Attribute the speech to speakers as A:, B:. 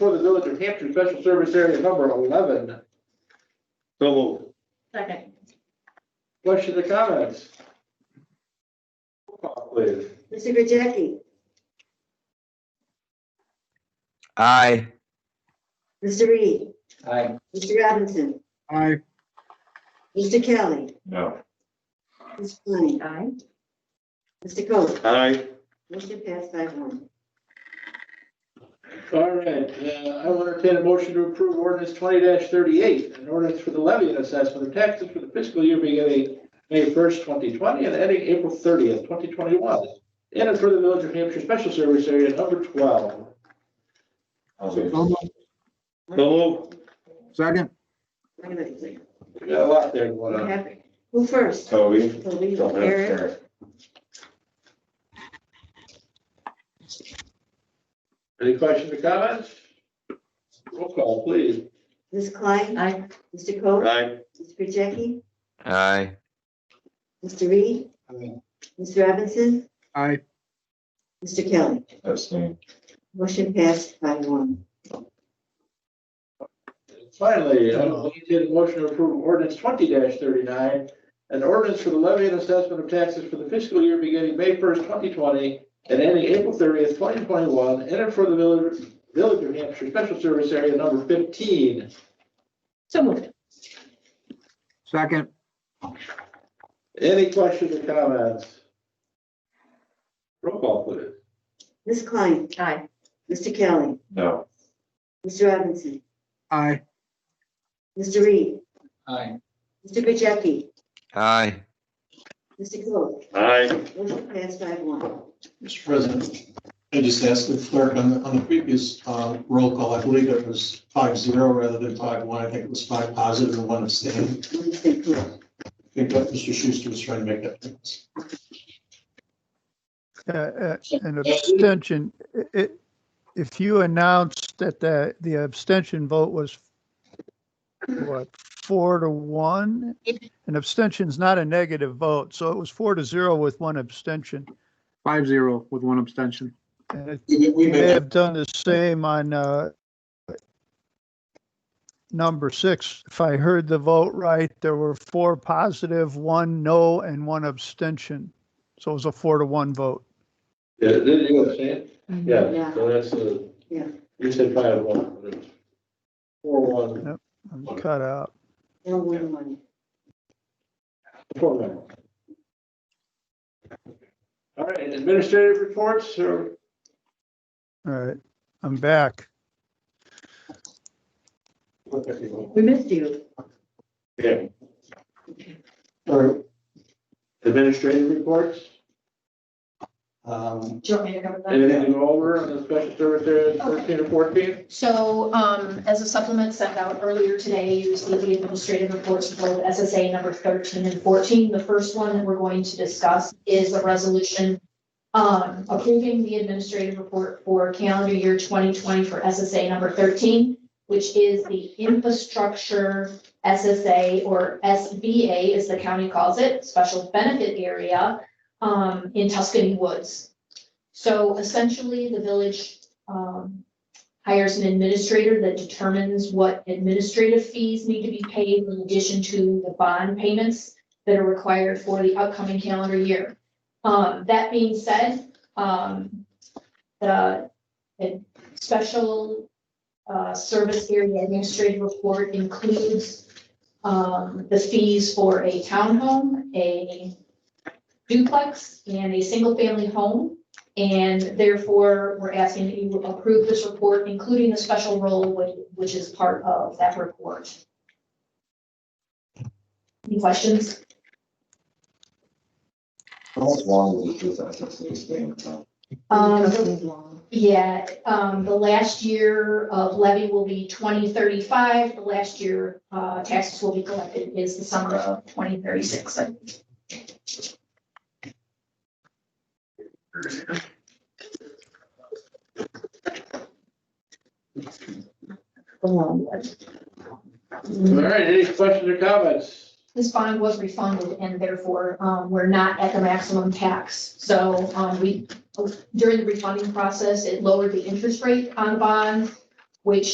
A: for the village of Hampton Special Service Area number eleven.
B: So moved.
C: Second.
A: Questions or comments? Roll call, Please.
D: Mr. Gajeki,
E: aye,
D: Mr. Reed,
A: Aye.
D: Mr. Robinson,
F: aye,
D: Mr. Kelly,
G: No.
D: Ms. Flannery,
C: Aye.
D: Mr. Coe.
B: Aye.
D: Motion passed by one.
A: All right, uh, I will entertain a motion to approve ordinance twenty thirty-eight, an ordinance for the levy and assessment of taxes for the fiscal year beginning May first, twenty twenty, and ending April thirtieth, twenty twenty-one. In and for the village of Hampshire Special Service Area number twelve.
G: I'll do it.
F: so moved.
B: So moved.
F: second,
D: Wait a minute, please.
A: We got a lot there going
D: What
A: on.
D: happened? Who first?
G: Toby.
D: Toby,
G: Don't have
D: Eric,
G: Eric.
A: Any questions or comments? Roll call, please.
D: Ms. Klein,
C: Aye.
D: Mr. Coe,
B: Aye.
D: Mr. Gajeki,
E: aye,
D: Mr. Reed,
A: Aye.
D: Mr. Robinson,
F: aye,
D: Mr. Kelly.
G: That's me.
D: Motion passed by one.
A: Finally, I will entertain a motion to approve ordinance twenty thirty-nine, an ordinance for the levy and assessment of taxes for the fiscal year beginning May first, twenty twenty, and ending April thirtieth, twenty twenty-one, and in for the village, village of Hampshire Special Service Area number fifteen.
C: So moved.
F: second,
A: Any questions or comments? Roll call, please.
D: Ms. Klein,
C: Aye.
D: Mr. Kelly,
G: No.
D: Mr. Robinson,
F: aye,
D: Mr. Reed,
A: Aye.
D: Mr. Gajeki,
E: aye.
D: Mr. Coe.
B: Aye.
D: Motion passed by one.
H: Mr. President, I just asked the clerk on the, on the previous uh, roll call, I believe it was five zero rather than five one. I think it was five positive and one abstaining.
D: Motion stayed correct.
H: I think that Mr. Schuster was trying to make that difference.
I: uh, uh, an abstention, i- i- if you announced that the, the abstention vote was what, four to one? An abstention's not a negative vote, so it was four to zero with one abstention.
F: five zero with one abstention.
I: And it-
H: We we
I: you
H: made
I: may
H: that
I: have done the same on, uh, number six. If I heard the vote right, there were four positive, one no, and one abstention. So it was a four to one vote.
A: Yeah, did you understand? Yeah,
D: Mm-hmm. Yeah.
A: so that's the.
D: Yeah.
A: You said five one. Four one,
I: I'm cut out.
D: No one one.
A: four one. All right, administrative reports or
I: All right, I'm back.
C: We missed you.
A: Okay. Or administrative reports,
H: um,
J: Do you want me to cover that?
A: anything to go over on the special service area thirteen or fourteen?
J: So um, as a supplement sent out earlier today, you received the administrative reports for both SSA number 13 and 14. The first one that we're going to discuss is a resolution um, approving the administrative report for calendar year 2020 for SSA number 13, which is the infrastructure SSA or SBA, as the county calls it, special benefit area um, in Tuscany Woods. So essentially, the village um, hires an administrator that determines what administrative fees need to be paid in addition to the bond payments that are required for the upcoming calendar year. Um, that being said, um, the, the special, uh, service area administrative report includes, um, the fees for a townhome, a duplex, and a single-family home. And therefore, we're asking that you approve this report, including the special role, which, which is part of that report. Any questions?
G: How long was this SSA stand?
J: Um,
D: Company's law.
J: Yeah, um, the last year of levy will be twenty thirty-five, the last year, uh, taxes will be collected is the summer of twenty thirty-six.
A: All right, any questions or comments?
J: this bond was refunded and therefore, um, we're not at the maximum tax. So, um, we, during the refunding process, it lowered the interest rate on the bond. which